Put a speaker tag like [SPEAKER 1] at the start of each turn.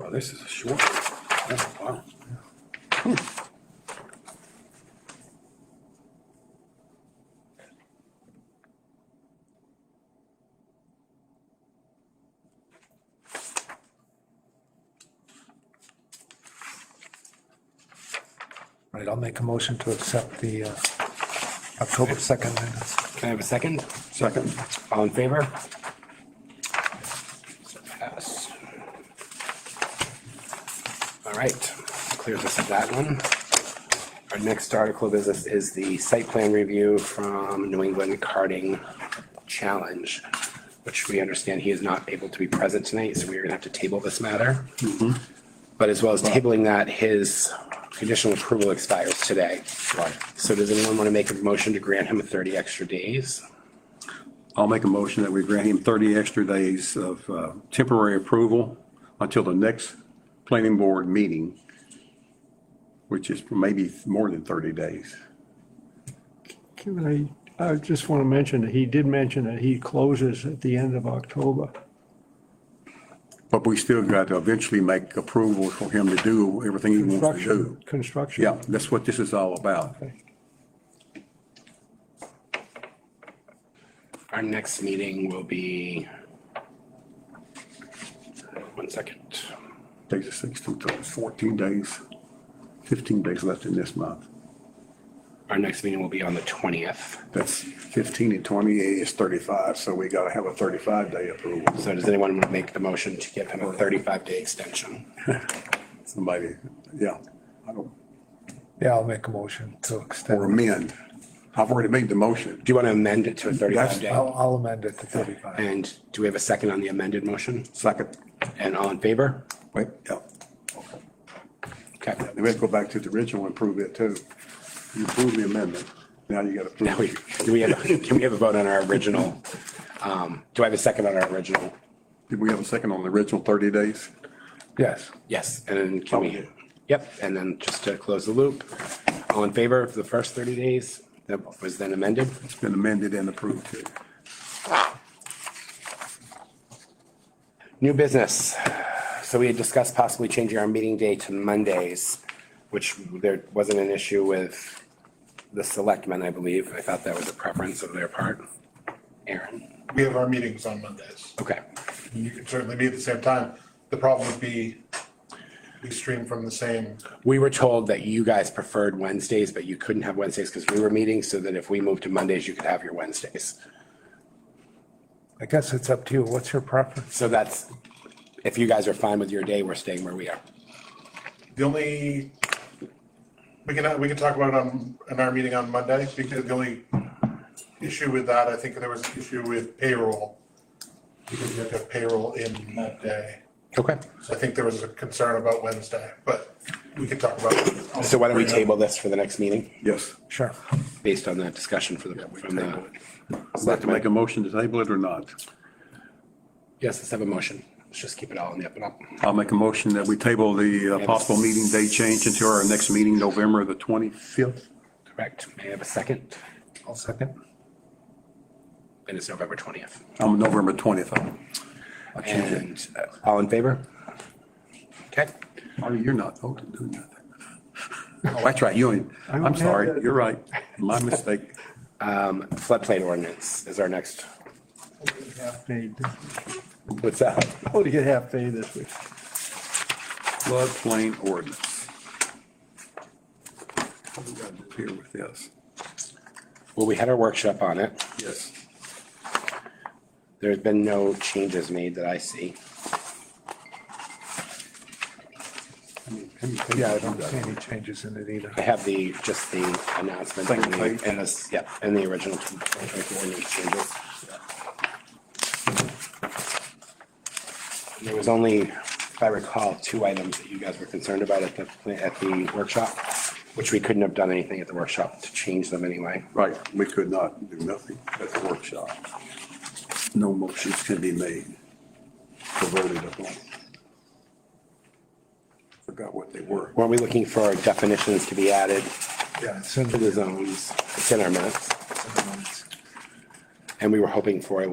[SPEAKER 1] Oh, this is a short. one. Oh, wow.
[SPEAKER 2] Right, I'll make a motion to accept the uh, October 2nd minutes.
[SPEAKER 3] Can I have a second?
[SPEAKER 1] Second.
[SPEAKER 3] All in favor? So Pass. All right, clears us of that one. Our next article of business is the site plan review from New England Karting Challenge, which we understand he is not able to be present tonight, so we're gonna have to table this matter. But as well as tabling that, his conditional approval expires today.
[SPEAKER 1] Right.
[SPEAKER 3] So does anyone want to make a motion to grant him 30 extra days?
[SPEAKER 1] I'll make a motion that we grant him 30 extra days of uh, temporary approval until the next planning board meeting, which is maybe more than 30 days.
[SPEAKER 4] Can I, I just want to mention that he did mention that he closes at the end of October.
[SPEAKER 1] But we still got to eventually make approval for him to do everything he wants to do.
[SPEAKER 4] Construction, construction.
[SPEAKER 1] Yeah, that's what this is all about.
[SPEAKER 3] Our next meeting will be, one second,
[SPEAKER 1] Days of 16, 14 days, 15 days left in this month.
[SPEAKER 3] our next meeting will be on the 20th.
[SPEAKER 1] That's 15 and 28 is 35, so we got to have a 35-day approval.
[SPEAKER 3] So does anyone want to make the motion to give him a 35-day extension?
[SPEAKER 1] Somebody, yeah, I don't,
[SPEAKER 2] Yeah, I'll make a motion to
[SPEAKER 1] or
[SPEAKER 2] extend.
[SPEAKER 1] amend. I've already made the motion.
[SPEAKER 3] Do you want to amend it to a
[SPEAKER 1] That's-
[SPEAKER 3] 35-day?
[SPEAKER 2] I'll I'll amend it to 35.
[SPEAKER 3] And do we have a second on the amended motion?
[SPEAKER 1] Second,
[SPEAKER 3] And all in favor?
[SPEAKER 1] wait, yeah.
[SPEAKER 3] Okay.
[SPEAKER 1] We have to go back to the original and prove it too. You approve the amendment, now you got to
[SPEAKER 3] Now we,
[SPEAKER 1] prove.
[SPEAKER 3] do we have, can we have a vote on our original? um, Do I have a second on our original?
[SPEAKER 1] Did we have a second on the original 30 days?
[SPEAKER 2] Yes.
[SPEAKER 3] Yes, and then can we,
[SPEAKER 1] Okay.
[SPEAKER 3] yep, and then just to close the loop, all in favor of the first 30 days that was then amended?
[SPEAKER 1] It's been amended and approved too.
[SPEAKER 3] New business. So we had discussed possibly changing our meeting day to Mondays, which there wasn't an issue with the selectmen, I believe. I thought that was a preference of their part. Aaron,
[SPEAKER 5] We have our meetings on Mondays.
[SPEAKER 3] okay,
[SPEAKER 5] You can certainly meet at the same time. The problem would be we stream from the same,
[SPEAKER 3] we were told that you guys preferred Wednesdays, but you couldn't have Wednesdays because we were meeting, so that if we moved to Mondays, you could have your Wednesdays.
[SPEAKER 2] I guess it's up to you. What's your preference?
[SPEAKER 3] So that's, if you guys are fine with your day, we're staying where we are.
[SPEAKER 5] the only, we can, we can talk about it on, in our meeting on Monday because the only issue with that, I think there was an issue with payroll. Because you have to have payroll in that day.
[SPEAKER 3] Okay.
[SPEAKER 5] So I think there was a concern about Wednesday, but we can talk about. it.
[SPEAKER 3] So why don't we table this for the next meeting,
[SPEAKER 1] Yes.
[SPEAKER 2] Sure.
[SPEAKER 3] based on that discussion for the, from the.
[SPEAKER 1] I'd like to make a motion to table it or not.
[SPEAKER 3] Yes, let's have a motion. Let's just keep it all in the up and up.
[SPEAKER 1] I'll make a motion that we table the uh, possible meeting day change until our next meeting, November the 25th.
[SPEAKER 3] Correct. May I have a second?
[SPEAKER 2] I'll second.
[SPEAKER 3] And it's November 20th.
[SPEAKER 1] Um, November 20th.
[SPEAKER 3] And uh, all in favor? Okay.
[SPEAKER 1] Oh, you're not voting, doing nothing. Oh, that's right, you ain't, I'm sorry, you're right, my mistake.
[SPEAKER 3] Um, Floodplain ordinance is our next.
[SPEAKER 4] Half paid.
[SPEAKER 3] What's that?
[SPEAKER 4] Oh, to get half paid this week.
[SPEAKER 1] Floodplain ordinance. What do we got to do Here with this.
[SPEAKER 3] Well, we had our workshop on it.
[SPEAKER 1] Yes.
[SPEAKER 3] There's been no changes made that I see.
[SPEAKER 2] Yeah, I don't see any changes in it either.
[SPEAKER 3] I have the, just the announcement and
[SPEAKER 1] Second page.
[SPEAKER 3] the- and this, yeah, and the original 2024 ordinance changes. There was only, if I recall, two items that you guys were concerned about at the, pla- at the workshop, which we couldn't have done anything at the workshop to change them anyway.
[SPEAKER 1] Right, we could not do nothing at the workshop. No motions can be made or voted upon. Forgot what they were.
[SPEAKER 3] Weren't we looking for definitions to be added
[SPEAKER 2] Yeah, it's in
[SPEAKER 3] to
[SPEAKER 2] the
[SPEAKER 3] the zones? It's in our minutes.
[SPEAKER 2] in the minutes.
[SPEAKER 3] And we were hoping for a